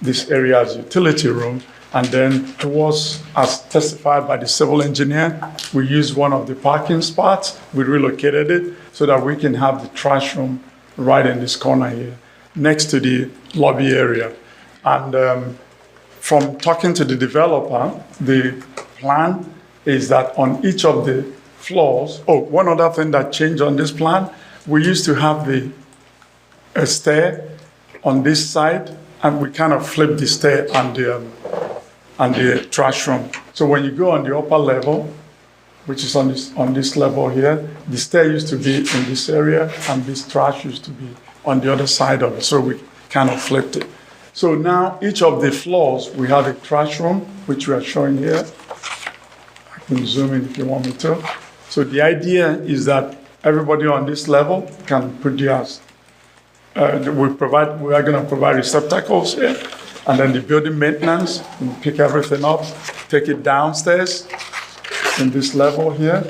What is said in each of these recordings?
this area as utility room. And then it was, as testified by the civil engineer, we used one of the parking spots, we relocated it so that we can have the trash room right in this corner here, next to the lobby area. And um, from talking to the developer, the plan is that on each of the floors, oh, one other thing that changed on this plan, we used to have the a stair on this side, and we kind of flip the stair and the, um, and the trash room. So when you go on the upper level, which is on this, on this level here, the stair used to be in this area, and this trash used to be on the other side of it, so we kind of flipped it. So now, each of the floors, we have a trash room, which we are showing here. I can zoom in if you want me to. So the idea is that everybody on this level can put theirs uh, we provide, we are going to provide receptacles here, and then the building maintenance, we pick everything up, take it downstairs in this level here,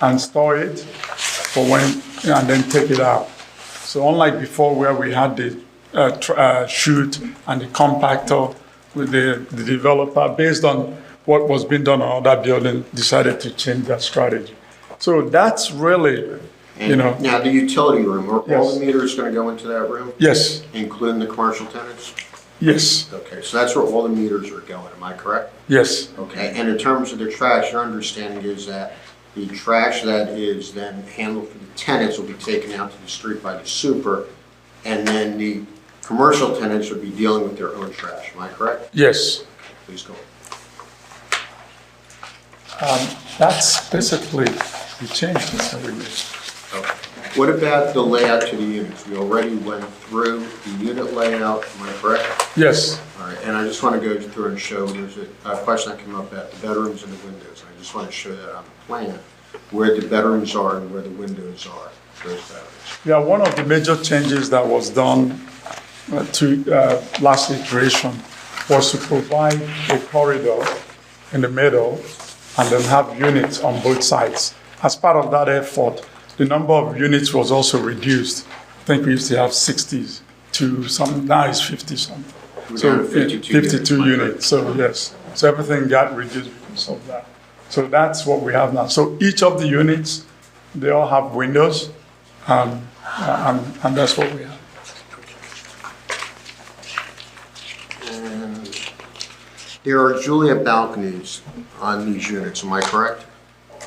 and store it for when, and then take it out. So unlike before where we had the uh, tr- uh, chute and the compactor, with the, the developer, based on what was being done on other building, decided to change that strategy. So that's really, you know, Now, the utility room, are all Yes. the meters going to go into that room, yes, including the commercial tenants? yes, Okay, so that's where all the meters are going, am I correct? yes. Okay, and in terms of the trash, your understanding is that the trash that is then handled for the tenants will be taken out to the street by the super, and then the commercial tenants would be dealing with their own trash, am I correct? Yes. Please go. That's basically, we changed this every year. Okay. What about the layout to the units? We already went through the unit layout, am I correct? Yes, All right, and I just want to go through and show, there's a a question that came up about the bedrooms and the windows. I just want to show that on the plan, where the bedrooms are and where the windows are, those bedrooms. yeah, one of the major changes that was done uh, to uh, last iteration was to provide a corridor in the middle and then have units on both sides. As part of that effort, the number of units was also reduced. I think we used to have 60s to some, now it's 50 something. We're So down to 52 units. 52 units, so yes. So everything got reduced because of that. So that's what we have now. So each of the units, they all have windows, um, and, and that's what we have. And There are Juliet balconies on these units, am I correct?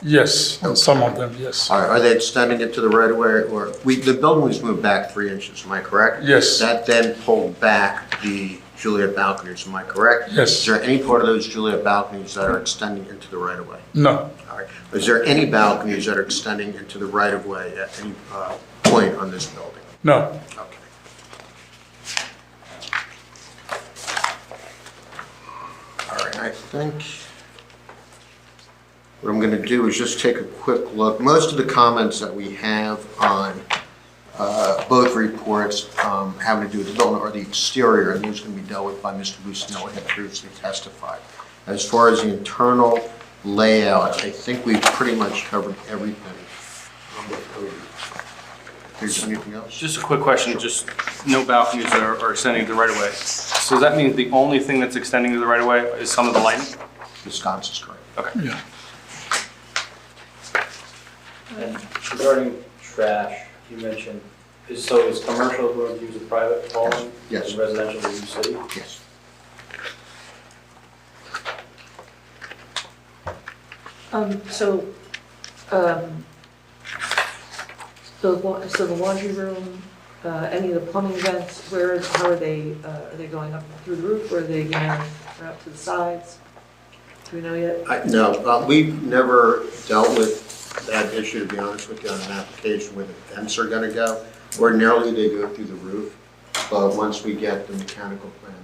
Yes, on some of them, yes. All right, Are they extending it to the right of way or, we, the building was moved back three inches, am I correct? Yes. That then pulled back the Juliet balconies, am I correct? Yes. Is there any part of those Juliet balconies that are extending into the right of way? No, All right. Is there any balconies that are extending into the right-of-way at any uh, point on this building? no, Okay. All right, I think what I'm going to do is just take a quick look. Most of the comments that we have on uh, both reports um, having to do with the building or the exterior, and those can be dealt with by Mr. Bushnell, who had previously testified. As far as the internal layout, I think we've pretty much covered everything. Um, If there's anything else? Just a quick question, just no balconies that are are extending to the right of way. So does that mean the only thing that's extending to the right of way is some of the lighting? Wisconsin's correct. Okay. yeah. And regarding trash, you mentioned, is, so is commercial going to use a private hauling? Yes. And residential will use city? Yes. Um, so, um, the wa, so the laundry room, uh, any of the plumbing vents, where is, how are they, uh, are they going up through the roof, or are they, you know, or up to the sides? Do we know yet? I- No, uh, we've never dealt with that issue, to be honest with you, on an application where the vents are going to go. Ordinarily, they go through the roof, but once we get the mechanical plan,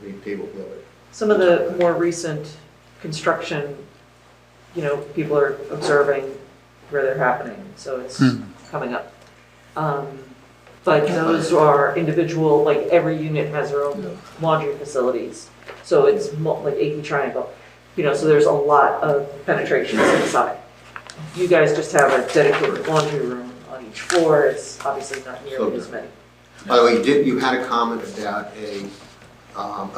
I mean, people will it. Some of the more recent construction, you know, people are observing where they're happening, so it's coming up. Um, But those are individual, like every unit has their own laundry facilities, so it's mo- like achy triangle. You know, so there's a lot of penetration inside. You guys just have a dedicated laundry room on each floor, it's obviously not nearly as many. By the way, you did, you had a comment about a, um,